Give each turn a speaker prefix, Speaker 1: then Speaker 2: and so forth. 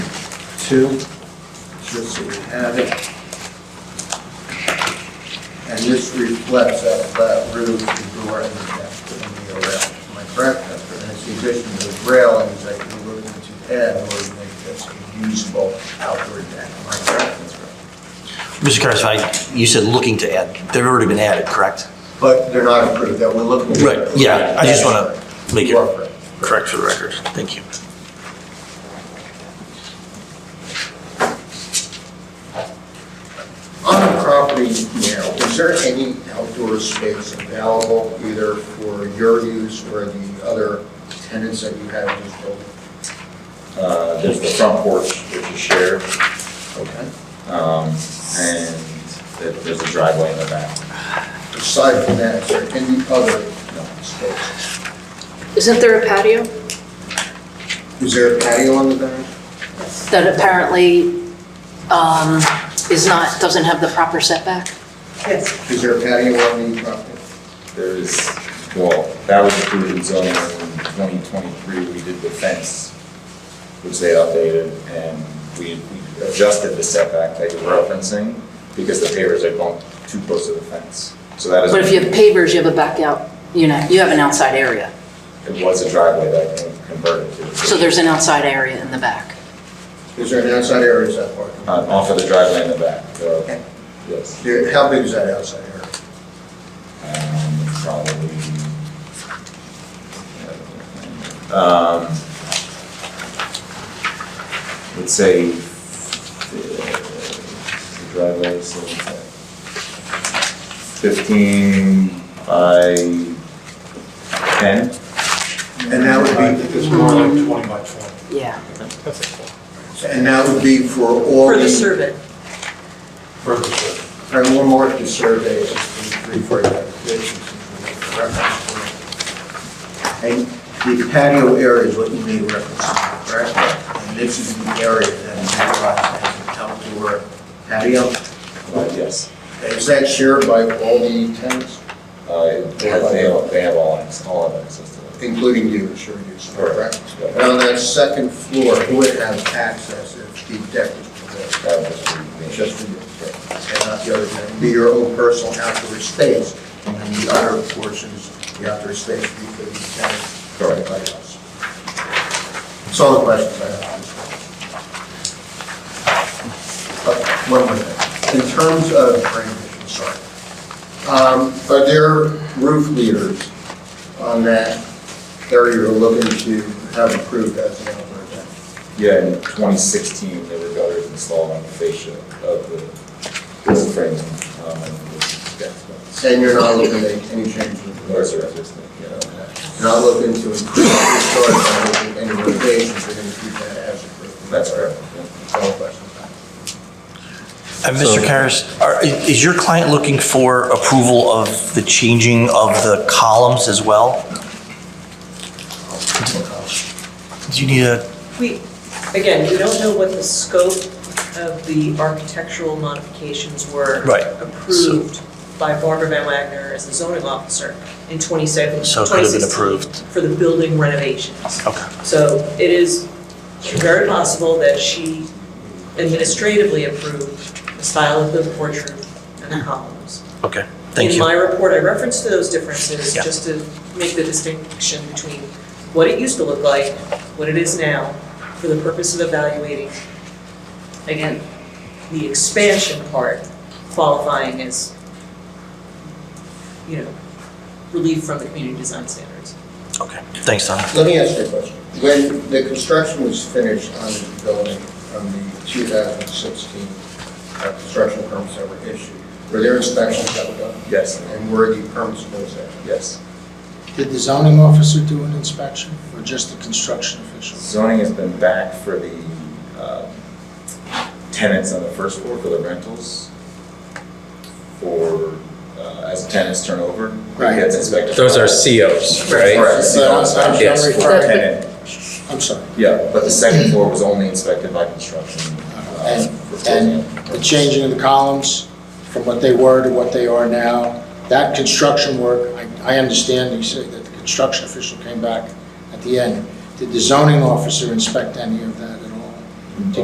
Speaker 1: two, just so you have it. And this reflects that flat roof, the door, and that's putting the rail, am I correct? That's right. And it's the addition of the railings that you're looking to add in order to make this a usable outdoor deck, am I correct? That's right.
Speaker 2: Mr. Carson, you said looking to add, they've already been added, correct?
Speaker 1: But they're not approved, that we're looking. at.
Speaker 2: Right, yeah, I just wanna make it-
Speaker 1: You are correct.
Speaker 2: Correct for the record. Thank you. Uh,
Speaker 1: On the property now, is there any outdoor space available either for your use or the other tenants that you have in this building?
Speaker 3: Uh, There's the front porch, which is shared,
Speaker 1: Okay.
Speaker 3: um, and there- there's a driveway in the back.
Speaker 1: Aside from that, is there any other space?
Speaker 4: Isn't there a patio
Speaker 1: Is there a patio on the back?
Speaker 4: that apparently um, is not, doesn't have the proper setback?
Speaker 5: Yes,
Speaker 1: Is there a patio on the property?
Speaker 3: There is, well, that was approved in zoning in 2023, we did the fence, which they updated, and we we adjusted the setback that you're referencing, because the pavers had gone too close to the fence. So that is.
Speaker 4: But if you have pavers, you have a back out, you know, you have an outside area.
Speaker 3: It was a driveway that I converted to.
Speaker 4: So there's an outside area in the back.
Speaker 1: Is there an outside area or is that parking?
Speaker 3: Uh, Off of the driveway in the back, so, yes.
Speaker 1: There- How big is that outside area?
Speaker 3: um, probably. Um, Would say, uh, the driveway, so what's that? fifteen by ten?
Speaker 1: And that would
Speaker 6: It's more like 20 by 20.
Speaker 4: Yeah.
Speaker 1: be, and that would be for all
Speaker 5: for the
Speaker 1: the-
Speaker 5: survey.
Speaker 6: Further survey.
Speaker 1: All right, one more to survey, is the three, four applications. And the patio area is what you made reference to, correct? And this is the area that is utilized as an outdoor patio.
Speaker 3: Uh, Yes.
Speaker 1: Is that shared by all the tenants,
Speaker 3: Uh, it has- They have, they have all, access- all of access to it.
Speaker 1: including you, sure you, correct?
Speaker 3: Correct.
Speaker 1: And on that second floor, who would have access if the deck was provided?
Speaker 3: That was the-
Speaker 1: Just for you, and not the other, thing. be your own personal outdoor space, and then the other portions, the outdoor space, be for the tenants, for everybody else. That's all the questions I have. Uh, One more thing, in terms of drainage, I'm sorry, Um, are there roof leaders on that area you're looking to have approved as an outdoor deck?
Speaker 3: Yeah, in 2016, there were gutters installed on the fascia of the roof frame. um, and the gas vents.
Speaker 1: And you're not looking at any changes in the rest
Speaker 3: Those are existing, you know.
Speaker 1: not looking to increase the storage area in any locations, we're gonna keep that as approved.
Speaker 3: That's correct.
Speaker 1: All questions.
Speaker 2: And Mr. Karas, are- i- is your client looking for approval of the changing of the columns as well? Do you need a,
Speaker 5: We, again, we don't know what the scope of the architectural modifications were.
Speaker 2: Right.
Speaker 5: Approved by Barbara Van Wagner as the zoning officer in 27 2016.
Speaker 2: so it could have been approved?
Speaker 5: For the building renovations.
Speaker 2: Okay.
Speaker 5: So it is very possible that she administratively approved the style of the porch roof and the columns.
Speaker 2: Okay, thank
Speaker 5: In
Speaker 2: you.
Speaker 5: my report, I referenced those differences,
Speaker 2: Yeah.
Speaker 5: just to make the distinction between what it used to look like, what it is now, for the purpose of evaluating, again, the expansion part qualifying as, you know, relief from the community design standards.
Speaker 2: Okay, thanks, Tom.
Speaker 1: Let me ask you a question. When the construction was finished on the building from the 2016 uh, construction permits that were issued, were there inspections that were done?
Speaker 3: Yes,
Speaker 1: And were the permits those that?
Speaker 3: yes.
Speaker 7: Did the zoning officer do an inspection or just the construction official?
Speaker 3: Zoning has been back for the um, tenants on the first floor for the rentals for, uh, as tenants turn over. it
Speaker 7: Right.
Speaker 3: gets inspected.
Speaker 8: Those are COs, right?
Speaker 3: Correct.
Speaker 7: So I'm- I'm- I'm
Speaker 8: Yes.
Speaker 7: referring-
Speaker 3: Tenant,
Speaker 7: I'm sorry.
Speaker 3: yeah, but the second floor was only inspected by construction. uh,
Speaker 7: And,
Speaker 3: for
Speaker 7: and the
Speaker 3: building.
Speaker 7: changing of the columns from what they were to what they are now, that construction work, I, I understand you say that the construction official came back at the end. Did the zoning officer inspect any of that at all?